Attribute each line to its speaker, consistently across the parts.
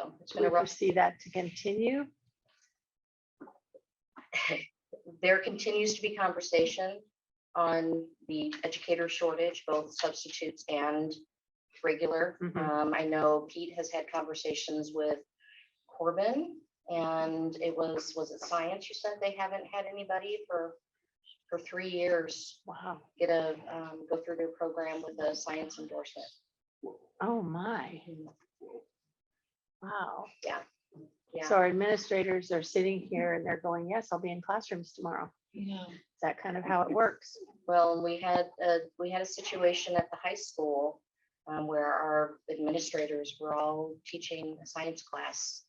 Speaker 1: um,
Speaker 2: It's been
Speaker 1: we
Speaker 2: a rough-
Speaker 1: foresee that to continue.
Speaker 2: There continues to be conversation on the educator shortage, both substitutes and regular.
Speaker 1: Mhm.
Speaker 2: Um, I know Pete has had conversations with Corbin and it was, was it science? You said they haven't had anybody for, for three years.
Speaker 1: Wow.
Speaker 2: Get a, um, go through their program with a science endorsement.
Speaker 1: Oh, my. Wow.
Speaker 2: Yeah.
Speaker 1: So our administrators are sitting here and they're going, yes, I'll be in classrooms tomorrow.
Speaker 3: Yeah.
Speaker 1: Is that kind of how it works?
Speaker 2: Well, and we had, a we had a situation at the high school um, where our administrators were all teaching a science class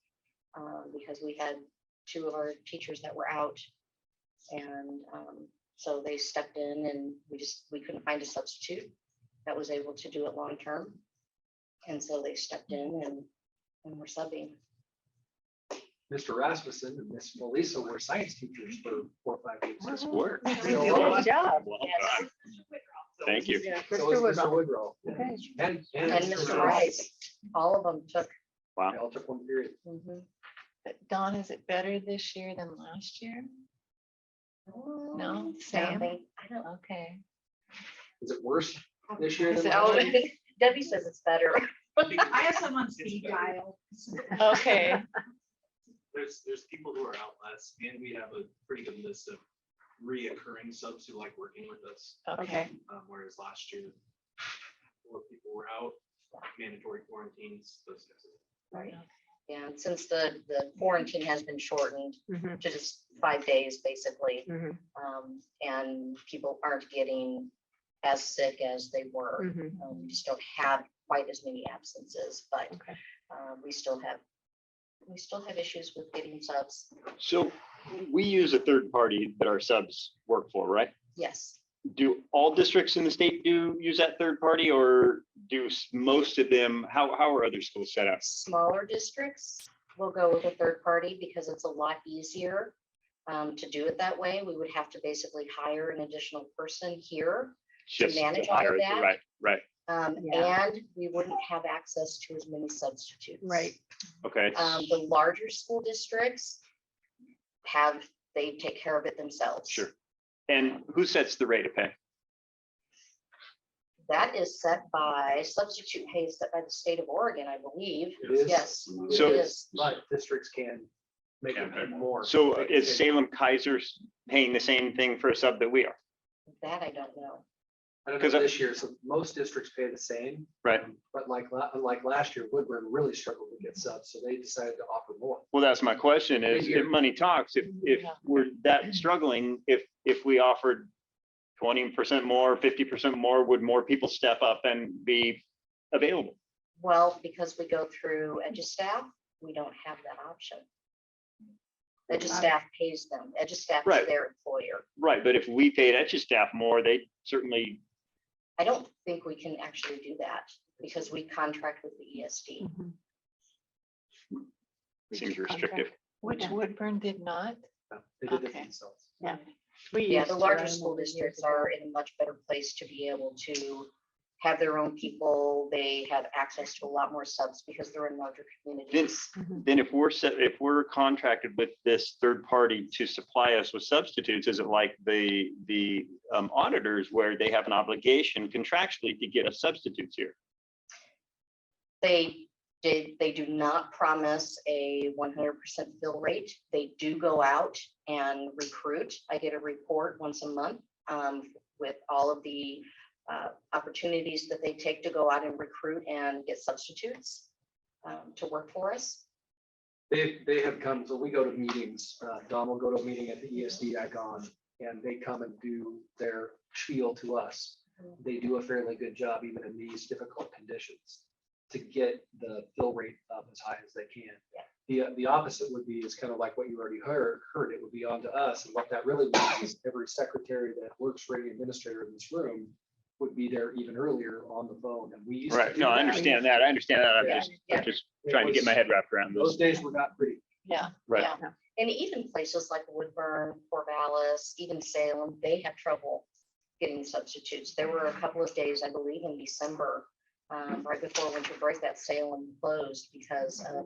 Speaker 2: um, because we had two of our teachers that were out. And um, so they stepped in and we just, we couldn't find a substitute that was able to do it long-term. And so they stepped in and, and were subbing.
Speaker 4: Mr. Rasmussen and Miss Melissa were science teachers for four, or five years. uh,
Speaker 1: Nice
Speaker 5: work.
Speaker 1: Good job.
Speaker 5: Well
Speaker 2: Yes.
Speaker 5: done. Thank you.
Speaker 4: So was
Speaker 1: Mr. Woodall.
Speaker 4: Mr. Woodrow.
Speaker 1: Okay.
Speaker 4: And, and.
Speaker 2: And Mr.
Speaker 4: Rice.
Speaker 2: Rice, all of them took.
Speaker 4: They all took one period.
Speaker 2: mhm.
Speaker 3: But Dawn, is it better this year than last year?
Speaker 2: No,
Speaker 3: Sam?
Speaker 2: they- I don't,
Speaker 3: Okay.
Speaker 4: Is it worse this year?
Speaker 3: Is
Speaker 4: than
Speaker 3: it
Speaker 4: last
Speaker 3: always-
Speaker 4: year?
Speaker 2: Debbie says it's better.
Speaker 6: I have someone speed dial.
Speaker 3: Okay.
Speaker 7: there's, there's people who are out less, and we have a pretty good list of reoccurring subs who like working with us,
Speaker 3: Okay.
Speaker 7: um, whereas last year, more people were out, mandatory quarantines, those guys.
Speaker 2: Yeah, and since the, the quarantine has been shortened
Speaker 1: Mhm,
Speaker 2: to just five days, basically,
Speaker 1: mhm,
Speaker 2: um, and people aren't getting as sick as they were.
Speaker 1: mhm.
Speaker 2: Um, We just don't have quite as many absences, but
Speaker 1: Okay.
Speaker 2: uh, we still have, we still have issues with getting subs.
Speaker 5: So we use a third party that our subs work for, right?
Speaker 2: Yes,
Speaker 5: Do all districts in the state do use that third party or do s- most of them, how, how are other schools set up?
Speaker 2: smaller districts will go with a third party because it's a lot easier um, to do it that way. We would have to basically hire an additional person here
Speaker 5: Just
Speaker 2: manage all of
Speaker 5: higher,
Speaker 2: that?
Speaker 5: right, right,
Speaker 2: Um,
Speaker 1: Yeah.
Speaker 2: and we wouldn't have access to as many substitutes.
Speaker 1: Right.
Speaker 5: okay.
Speaker 2: Um, the larger school districts have, they take care of it themselves.
Speaker 5: Sure. And who sets the rate of pay?
Speaker 2: That is set by substitute pay is set by the state of Oregon, I believe.
Speaker 4: It is.
Speaker 2: Yes.
Speaker 4: It
Speaker 5: So-
Speaker 4: is,
Speaker 2: is.
Speaker 4: But districts can make it
Speaker 5: Yeah.
Speaker 4: more.
Speaker 5: So
Speaker 4: Like,
Speaker 5: is Salem Kaiser paying the same thing for a sub that we are?
Speaker 2: That I don't know.
Speaker 4: I don't know
Speaker 5: 'cause I-
Speaker 4: this year, so most districts pay the same. Um,
Speaker 5: Right.
Speaker 4: But like, la- unlike last year, Woodburn really struggled to get subs, so they decided to offer more.
Speaker 5: Well, that's my question is, if money talks, if,
Speaker 4: Mm-hmm.
Speaker 5: if
Speaker 3: Yeah.
Speaker 5: we're that struggling, if, if we offered twenty percent more, fifty percent more, would more people step up and be available?
Speaker 2: Well, because we go through EduStaff, we don't have that option. EduStaff pays them. EduStaff
Speaker 5: Right.
Speaker 2: is their employer.
Speaker 5: Right, but if we paid etch staff more, they certainly,
Speaker 2: I don't think we can actually do that because we contract with the E ESD.
Speaker 1: Mhm.
Speaker 5: seems restrictive.
Speaker 3: Which
Speaker 1: Yeah.
Speaker 3: Woodburn did not?
Speaker 4: Uh, They did it
Speaker 3: Okay.
Speaker 4: themselves.
Speaker 1: We
Speaker 2: Yeah,
Speaker 1: used
Speaker 2: the
Speaker 1: to, I
Speaker 2: larger school
Speaker 1: remember years
Speaker 2: districts
Speaker 1: ago.
Speaker 2: are in a much better place to be able to have their own people. They have access to a lot more subs because they're in larger communities.
Speaker 1: Mm-hmm.
Speaker 5: Then if we're set, if we're contracted with this third party to supply us with substitutes, is it like the, the um, auditors where they have an obligation contractually to get us substitutes here?
Speaker 2: They did, they do not promise a one hundred percent fill rate. They do go out and recruit. I get a report once a month um, with all of the uh, opportunities that they take to go out and recruit and get substitutes um, to work for us.
Speaker 4: They, they have come, so we go to meetings, uh, Don will go to a meeting at the E ESD icon, and they come and do their spiel to us. They do a fairly good job, even in these difficult conditions, to get the fill rate up as high as they can. The, the opposite would be, is kind of like what you already heard, heard, it would be on to us, and what that really means is every secretary that works for any administrator in this room would be there even earlier on the phone, and we. used to
Speaker 5: Right,
Speaker 4: do
Speaker 5: no, I
Speaker 4: that.
Speaker 5: understand that, I understand that, I'm
Speaker 4: Yeah.
Speaker 5: just, I'm just
Speaker 4: It
Speaker 5: trying to get
Speaker 4: was-
Speaker 5: my head wrapped around
Speaker 4: Those
Speaker 5: this.
Speaker 4: days were not pretty.
Speaker 3: Yeah.
Speaker 5: Right.
Speaker 2: Yeah. And even places like Woodburn, Corvallis, even Salem, they have trouble getting substitutes. There were a couple of days, I believe, in December, um, right before winter break, that Salem closed because of